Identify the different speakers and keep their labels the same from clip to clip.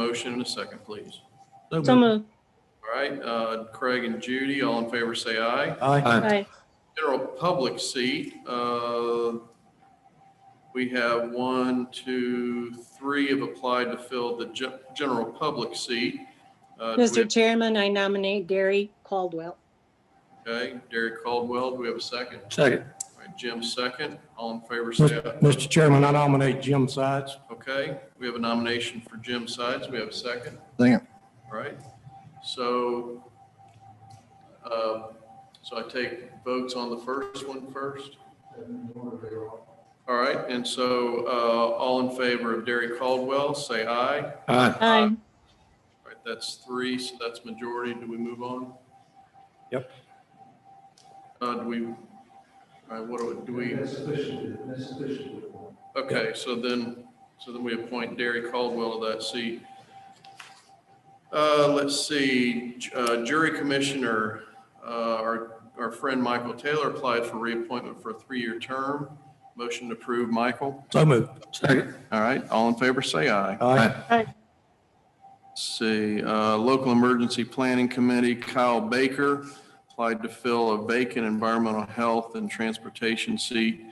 Speaker 1: motion and a second, please?
Speaker 2: So
Speaker 3: Aye.
Speaker 2: moved.
Speaker 1: All right, uh, Craig and Judy, all in favor, say aye.
Speaker 2: Aye.
Speaker 1: General public seat, uh, we have one, two, three have applied to fill the ge- general public seat. Uh, do we
Speaker 2: Mr. Chairman, I nominate Gary Caldwell.
Speaker 1: have- Okay, Derek Caldwell, do we have a second?
Speaker 3: Second.
Speaker 1: All right, Jim, second, all in favor, say aye.
Speaker 3: Mr. Chairman, I nominate Jim Sides.
Speaker 1: Okay, we have a nomination for Jim Sides. We have a second.
Speaker 4: Second.
Speaker 1: All right. So, uh, so I take votes on the first one first. All right, and so uh, all in favor of Derry Caldwell, say aye. All
Speaker 3: Aye.
Speaker 2: Aye.
Speaker 1: right, that's three, so that's majority. Do we move on?
Speaker 3: Yep.
Speaker 1: Uh, Do we, all right, what do we- do we? Okay, so then, so then we appoint Derry Caldwell to that seat. Uh, let's see, j- uh, jury commissioner, uh, our, our friend Michael Taylor applied for reappointment for a three-year term. Motion to approve, Michael.
Speaker 3: So moved. Second.
Speaker 1: All right, all in favor, say aye.
Speaker 3: Aye.
Speaker 1: See, uh, Local Emergency Planning Committee, Kyle Baker applied to fill a vacant environmental health and transportation seat.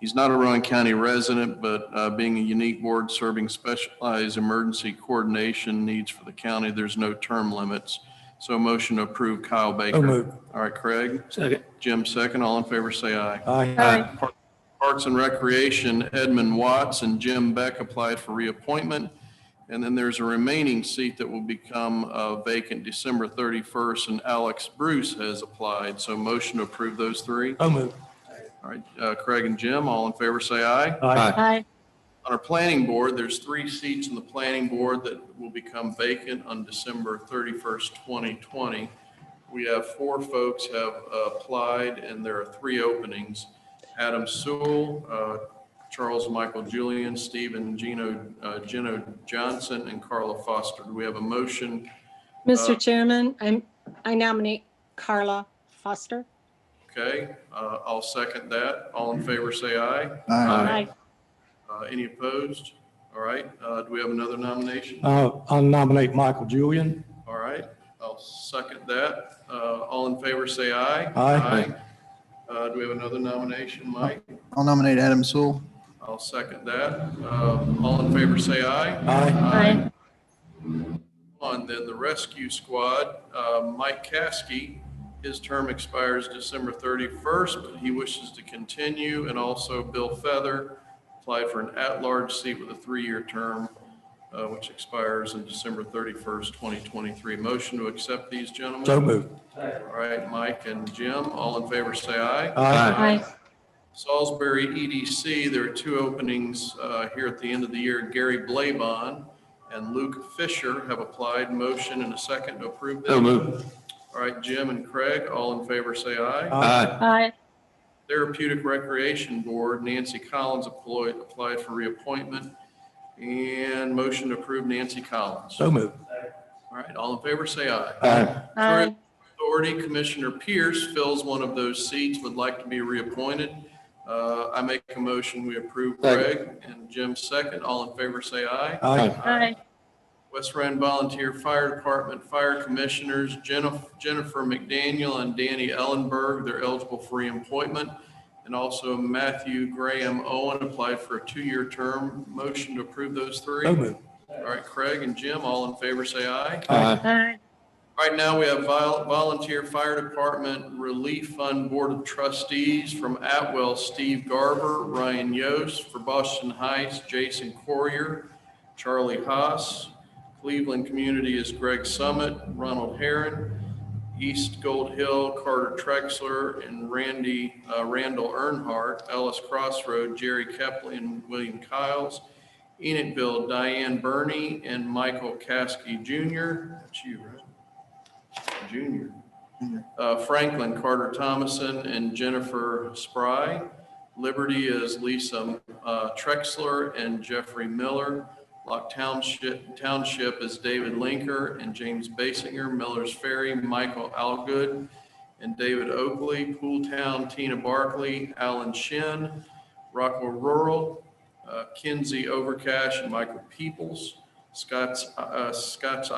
Speaker 1: He's not a Rowan County resident, but uh, being a unique board serving specialized emergency coordination needs for the county, there's no term limits. So motion to approve Kyle Baker.
Speaker 3: moved.
Speaker 1: All right, Craig.
Speaker 3: Second.
Speaker 1: Jim, second. All in favor, say aye.
Speaker 3: Aye.
Speaker 2: Aye.
Speaker 1: Parks and Recreation, Edmund Watts and Jim Beck applied for reappointment. And then there's a remaining seat that will become uh, vacant December 31st, and Alex Bruce has applied. So motion to approve those three.
Speaker 3: So moved.
Speaker 1: All right, uh, Craig and Jim, all in favor, say aye.
Speaker 3: Aye.
Speaker 2: Aye.
Speaker 1: On our planning board, there's three seats in the planning board that will become vacant on December 31st, 2020. We have four folks have uh, applied, and there are three openings. Adam Sewell, uh, Charles Michael Julian, Stephen Gino, uh, Gino Johnson, and Carla Foster. Do we have a motion?
Speaker 2: Mr. Chairman, I'm, I nominate Carla Foster.
Speaker 1: Okay, uh, I'll second that. All in favor, say aye.
Speaker 2: Aye.
Speaker 1: Uh, Any opposed? All right, uh, do we have another nomination?
Speaker 3: Uh, I nominate Michael Julian.
Speaker 1: All right, I'll second that. Uh, All in favor, say aye.
Speaker 3: Aye.
Speaker 1: Uh, Do we have another nomination, Mike?
Speaker 4: I'll nominate Adam Sewell.
Speaker 1: I'll second that. Uh, All in favor, say aye.
Speaker 3: Aye.
Speaker 2: Aye.
Speaker 1: On then the rescue squad, uh, Mike Caskey, his term expires December 31st, but he wishes to continue. And also Bill Feather applied for an at-large seat with a three-year term, uh, which expires in December 31st, 2023. Motion to accept these gentlemen?
Speaker 3: So moved.
Speaker 1: All right, Mike and Jim, all in favor, say aye.
Speaker 3: Aye.
Speaker 2: Aye.
Speaker 1: Salisbury EDC, there are two openings uh, here at the end of the year. Gary Blaybon and Luke Fisher have applied. Motion and a second to approve them.
Speaker 3: So moved.
Speaker 1: All right, Jim and Craig, all in favor, say aye.
Speaker 3: Aye.
Speaker 2: Aye.
Speaker 1: Therapeutic Recreation Board, Nancy Collins applied applied for reappointment. And motion to approve Nancy Collins. All
Speaker 3: So moved.
Speaker 1: right, all in favor, say aye.
Speaker 3: Aye.
Speaker 2: Aye.
Speaker 1: Authority, Commissioner Pierce fills one of those seats, would like to be reappointed. Uh, I make a motion, we approve Greg and Jim second. All in favor, say aye.
Speaker 3: Aye.
Speaker 2: Aye.
Speaker 1: West Rand Volunteer Fire Department Fire Commissioners Jennifer Jennifer McDaniel and Danny Ellenberg, they're eligible for reappointment. And also Matthew Graham Owen applied for a two-year term. Motion to approve those three.
Speaker 3: So moved.
Speaker 1: All right, Craig and Jim, all in favor, say aye.
Speaker 3: Aye.
Speaker 2: Aye.
Speaker 1: Right now, we have vol- volunteer fire department relief fund board of trustees from Atwell, Steve Garber, Ryan Yost, for Boston Heights, Jason Corrier, Charlie Haas. Cleveland Community is Greg Summit, Ronald Heron, East Gold Hill, Carter Trexler, and Randy, uh, Randall Earnhardt, Ellis Crossroad, Jerry Kepley, and William Kiles. Enidville, Diane Burney, and Michael Caskey Jr. That's you, right? Junior. Uh, Franklin Carter Thomason and Jennifer Spry. Liberty is Lisa uh, Trexler and Jeffrey Miller. Lock Township, Township is David Linker and James Basinger. Miller's Ferry, Michael Algood and David Oakley. Pool Town, Tina Barkley, Alan Shin. Rockwell Rural, uh, Kinsey Overcash and Michael Peoples. Scott's, uh, Scott's